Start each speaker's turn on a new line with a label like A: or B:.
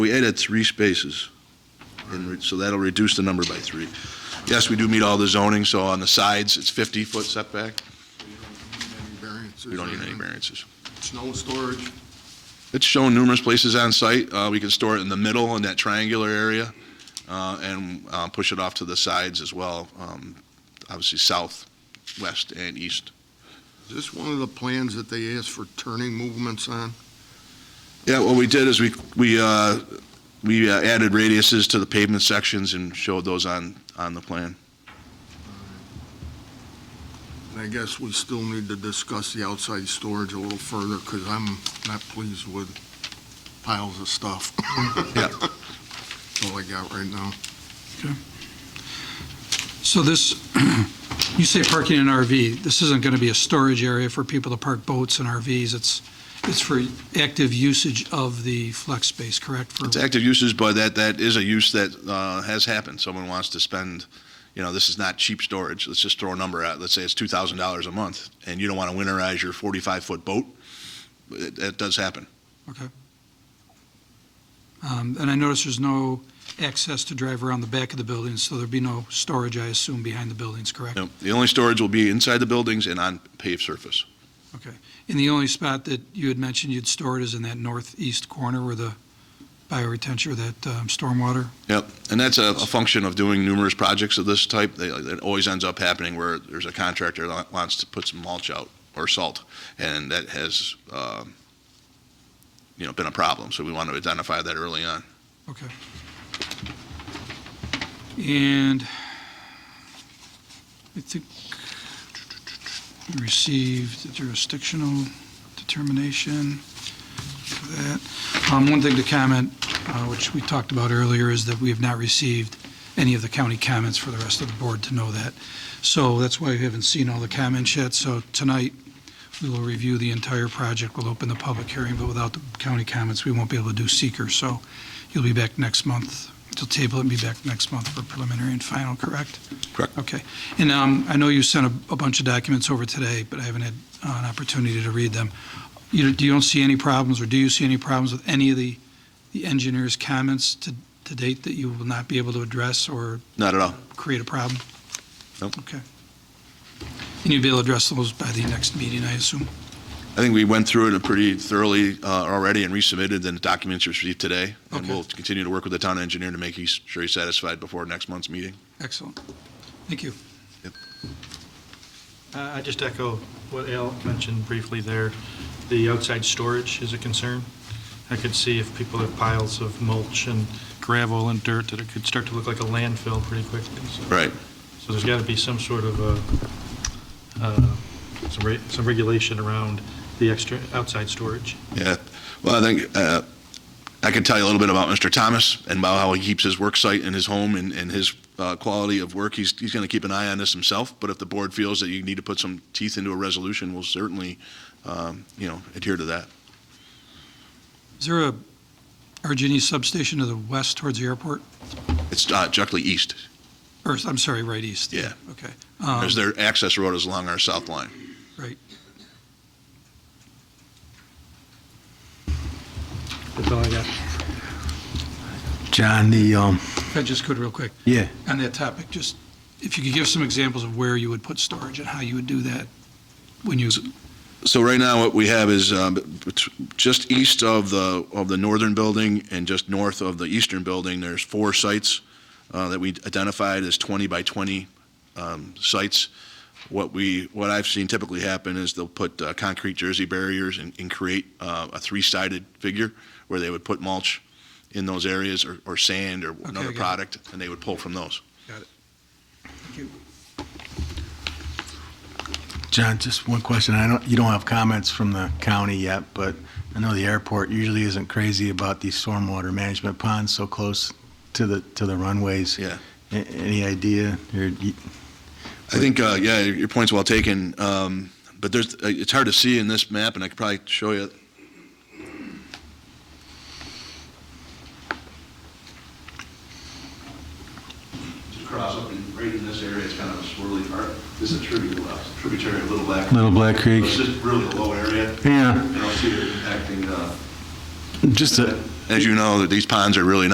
A: We added three spaces, and re- so that'll reduce the number by three. Yes, we do meet all the zoning, so on the sides, it's 50-foot setback. We don't need any variances.
B: Snow storage,
A: It's shown numerous places on site. Uh, We can store it in the middle in that triangular area uh, and uh, push it off to the sides as well, um, obviously south, west, and east.
B: is this one of the plans that they asked for turning movements on?
A: Yeah, what we did is we, we, uh, we uh, added radiuses to the pavement sections and showed those on, on the plan.
B: And I guess we still need to discuss the outside storage a little further, because I'm not pleased with piles of stuff.
A: Yeah.
B: That's all I got right now.
C: So this, you say parking an RV, this isn't going to be a storage area for people to park boats and RVs, it's, it's for active usage of the flex space, correct? For-
A: It's active uses, but that, that is a use that uh, has happened. Someone wants to spend, you know, this is not cheap storage. Let's just throw a number out. Let's say it's $2,000 a month, and you don't want to winterize your 45-foot boat. It- That does happen.
C: Um, And I notice there's no access to drive around the back of the building, so there'd be no storage, I assume, behind the buildings, correct?
A: No, The only storage will be inside the buildings and on paved surface.
C: And the only spot that you had mentioned you'd store it is in that northeast corner where the bioretention, or that um, stormwater?
A: Yep, and that's a, a function of doing numerous projects of this type. They, it always ends up happening where there's a contractor that wants to put some mulch out or salt, and that has, um, you know, been a problem. So we want to identify that early on.
C: Okay. And I think we received the jurisdictional determination for that. Um, One thing to comment, uh, which we talked about earlier, is that we have not received any of the county comments for the rest of the board to know that. So that's why we haven't seen all the comments yet. So tonight, we will review the entire project. We'll open the public hearing, but without the county comments, we won't be able to do seeker. So You'll be back next month. You'll table it and be back next month for preliminary and final, correct?
A: Correct.
C: Okay. And um, I know you sent a a bunch of documents over today, but I haven't had uh, an opportunity to read them. You do you don't see any problems, or do you see any problems with any of the the engineer's comments to to date that you will not be able to address or
A: Not at all.
C: create a problem?
A: Nope.
C: Okay. And you'll be able to address those by the next meeting, I assume?
A: I think we went through it pretty thoroughly uh, already and resubmitted the documents received today. And
C: Okay.
A: we'll continue to work with the town engineer to make he's- sure he's satisfied before next month's meeting.
C: Excellent. Thank you.
D: Uh, I I just echo what Al mentioned briefly there. The outside storage is a concern. I could see if people have piles of mulch and gravel and dirt, that it could start to look like a landfill pretty quickly. So-
A: Right.
D: So there's got to be some sort of a, uh, some re- some regulation around the extra, outside storage.
A: Yeah, well, I think, uh, I can tell you a little bit about Mr. Thomas and about how he keeps his work site and his home and, and his uh, quality of work. He's, he's going to keep an eye on this himself, but if the board feels that you need to put some teeth into a resolution, we'll certainly, um, you know, adhere to that.
C: Is there a Argini substation to the west towards the airport?
A: It's uh, directly east,
C: Or, I'm sorry, right east?
A: Yeah.
C: Okay. Um,
A: because their access road is along our south line.
D: That's all I got.
E: John, the, um,
C: If I just could real quick.
E: Yeah.
C: On that topic, just, if you could give some examples of where you would put storage and how you would do that when you,
A: So right now, what we have is um, bet- just east of the, of the northern building and just north of the eastern building, there's four sites uh, that we identified as 20 by 20 um, sites. What we, what I've seen typically happen is they'll put uh, concrete jersey barriers and and create uh, a three-sided figure where they would put mulch in those areas or or sand or another
C: I got it.
A: product, and they would pull from those.
E: John, just one question. I don't, you don't have comments from the county yet, but I know the airport usually isn't crazy about these stormwater management ponds so close to the, to the runways.
A: Yeah.
E: A- Any idea? Or you-
A: I think, uh, yeah, your your point's well taken, um, but there's, uh, it's hard to see in this map, and I could probably show you. Just cross up and right in this area, it's kind of a swirly part. This is a tributary, tributary of Little Black.
E: Little Black Creek?
A: It's just really a low area.
E: Yeah,
A: I don't see it impacting, uh,
E: just a,
A: As you know, that these ponds are really not